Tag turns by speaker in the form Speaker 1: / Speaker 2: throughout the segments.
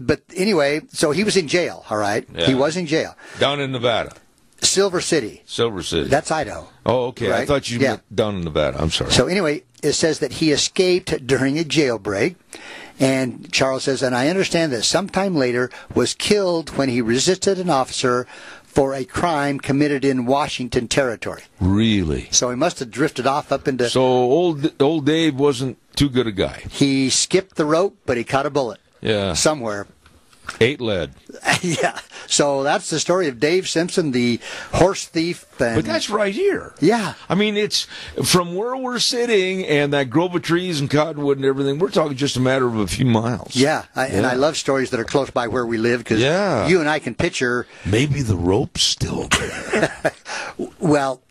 Speaker 1: But anyway, so he was in jail, all right?
Speaker 2: Yeah.
Speaker 1: He was in jail.
Speaker 2: Down in Nevada,
Speaker 1: Silver City.
Speaker 2: Silver City.
Speaker 1: That's Idaho.
Speaker 2: oh, okay. I
Speaker 1: right,
Speaker 2: thought you
Speaker 1: yeah.
Speaker 2: meant down in Nevada. I'm sorry.
Speaker 1: So anyway, it says that he escaped during a jailbreak. And Charles says, and I understand that sometime later was killed when he resisted an officer for a crime committed in Washington territory.
Speaker 2: really?
Speaker 1: So he must have drifted off up into.
Speaker 2: So old old Dave wasn't too good a guy.
Speaker 1: he skipped the rope, but he caught a bullet
Speaker 2: Yeah.
Speaker 1: somewhere.
Speaker 2: Eight lead.
Speaker 1: yeah. So that's the story of Dave Simpson, the horse thief. And,
Speaker 2: But that's right here.
Speaker 1: Yeah.
Speaker 2: I mean, it's from where we're sitting and that grove of trees and cottonwood and everything. We're talking just a matter of a few miles.
Speaker 1: Yeah, I, and
Speaker 2: Yeah.
Speaker 1: I love stories that are close by where we live because
Speaker 2: Yeah.
Speaker 1: you and I can picture.
Speaker 2: Maybe the rope's still there.
Speaker 1: Well,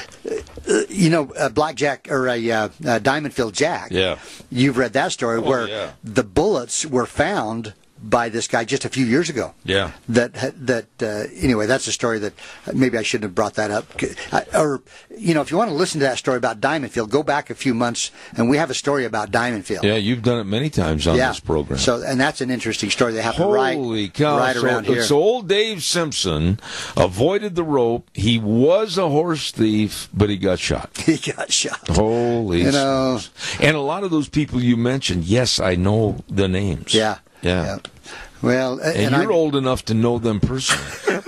Speaker 1: you know, a blackjack or a, uh, a diamondfield jack.
Speaker 2: Yeah. Oh,
Speaker 1: you've read that story where
Speaker 2: yeah.
Speaker 1: the bullets were found by this guy just a few years ago.
Speaker 2: Yeah.
Speaker 1: That that uh, anyway, that's a story that uh, maybe I shouldn't have brought that up. I, or you know, if you want to listen to that story about Diamondfield, go back a few months and we have a story about Diamondfield.
Speaker 2: yeah, you've done it many times on
Speaker 1: Yeah.
Speaker 2: this program.
Speaker 1: So, and that's an interesting story. They happen
Speaker 2: Holy
Speaker 1: right,
Speaker 2: cow.
Speaker 1: right
Speaker 2: so,
Speaker 1: around here.
Speaker 2: so old Dave Simpson avoided the rope. He was a horse thief, but he got shot.
Speaker 1: he got shot.
Speaker 2: Holy
Speaker 1: You know.
Speaker 2: smokes. And a lot of those people you mentioned, yes, I know the names.
Speaker 1: Yeah.
Speaker 2: Yeah.
Speaker 1: Well, a-
Speaker 2: And,
Speaker 1: and,
Speaker 2: you're
Speaker 1: I,
Speaker 2: old enough to know them personally.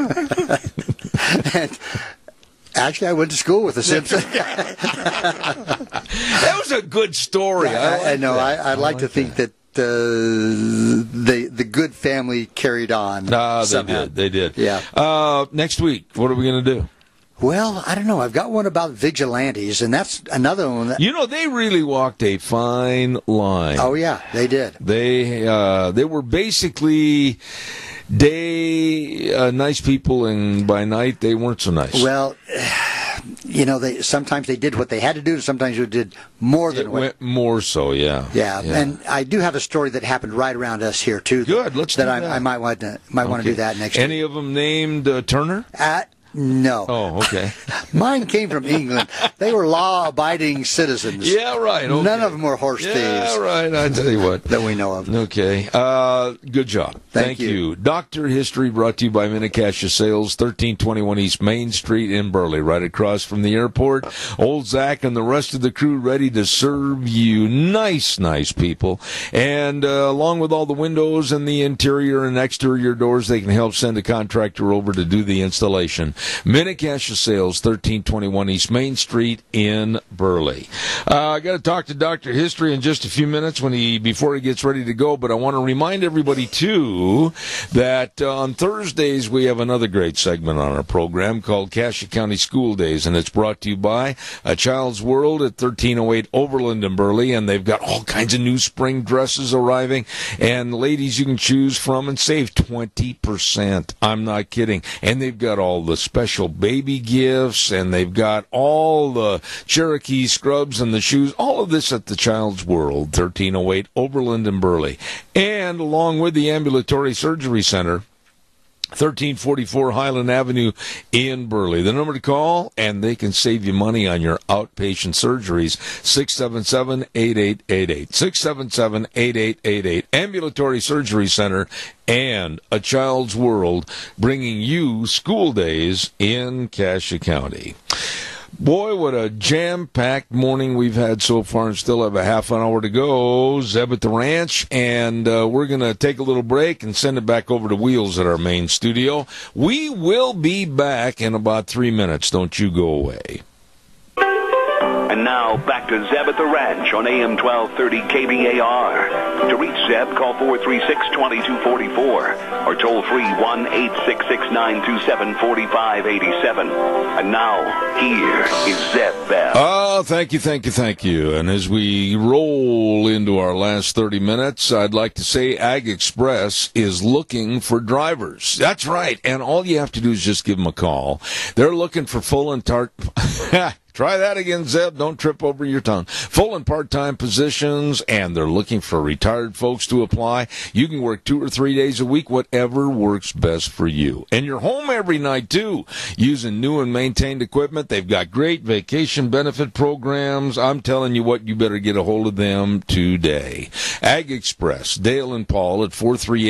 Speaker 1: and actually, I went to school with the Simpsons.
Speaker 2: That was a good story.
Speaker 1: I, I
Speaker 2: like
Speaker 1: know.
Speaker 2: that.
Speaker 1: I, I like to think that. uh, the the good family carried on.
Speaker 2: Ah, they
Speaker 1: somehow.
Speaker 2: did. They did.
Speaker 1: Yeah.
Speaker 2: Uh, next week, what are we going to do?
Speaker 1: Well, I don't know. I've got one about vigilantes, and that's another one. That,
Speaker 2: You know, they really walked a fine line.
Speaker 1: oh yeah, they did.
Speaker 2: They uh, they were basically day uh, nice people, and by night they weren't so nice.
Speaker 1: Well, you know, they sometimes they did what they had to do, and sometimes they did more than
Speaker 2: it
Speaker 1: what
Speaker 2: went more so. Yeah.
Speaker 1: Yeah, and I do have a story that happened right around us here too.
Speaker 2: Good, let's
Speaker 1: that
Speaker 2: do
Speaker 1: I,
Speaker 2: that.
Speaker 1: I might want to might want to do that next.
Speaker 2: Any of them named uh, Turner?
Speaker 1: week. Uh, no,
Speaker 2: Oh, okay.
Speaker 1: mine came from England. they were law-abiding citizens.
Speaker 2: yeah, right. okay.
Speaker 1: None of them were horse
Speaker 2: Yeah,
Speaker 1: thieves
Speaker 2: right. I tell you what.
Speaker 1: that we know of.
Speaker 2: Okay. Uh, good job.
Speaker 1: Thank you.
Speaker 2: Doctor History brought to you by Minnecasia Sales, 1321 East Main Street in Burley, right across from the airport. Old Zach and the rest of the crew ready to serve you. Nice, nice people. And uh, along with all the windows and the interior and exterior doors, they can help send a contractor over to do the installation. Minnecasia Sales, 1321 East Main Street in Burley. Uh, I got to talk to Dr. History in just a few minutes when he before he gets ready to go, but I want to remind everybody too that uh, on Thursdays we have another great segment on our program called Cache County School Days and it's brought to you by A Child's World at 1308 Overland in Burley and they've got all kinds of new spring dresses arriving and ladies you can choose from and save 20%. I'm not kidding. And they've got all the special baby gifts and they've got all the Cherokee scrubs and the shoes, all of this at the Child's World, 1308 Oberland and Burley. And along with the Ambulatory Surgery Center, 1344 Highland Avenue in Burley. The number to call, and they can save you money on your outpatient surgeries. 677 8888. 677 8888. Ambulatory Surgery Center and A Child's World bringing you school days in Cache County. Boy, what a jam packed morning we've had so far, and still have a half an hour to go. Zeb at the ranch, and uh, we're going to take a little break and send it back over to Wheels at our main studio. We will be back in about three minutes. Don't you go away.
Speaker 3: And now back to Zeb at the Ranch on AM 1230 KBAR. To reach Zeb, call 436-2244 or toll free 1-866-927-4587. And now, here is Zeb Bell.
Speaker 2: Oh, thank you, thank you, thank you. And as we roll into our last 30 minutes, I'd like to say Ag Express is looking for drivers. That's right. And all you have to do is just give them a call. They're looking for full and tart. Try that again, Zeb. Don't trip over your tongue. Full and part-time positions, and they're looking for retired folks to apply. You can work two or three days a week, whatever works best for you. And you're home every night too, using new and maintained equipment. They've got great vacation benefit programs. I'm telling you what, you better get a hold of them today. Ag Express, Dale and Paul at 438.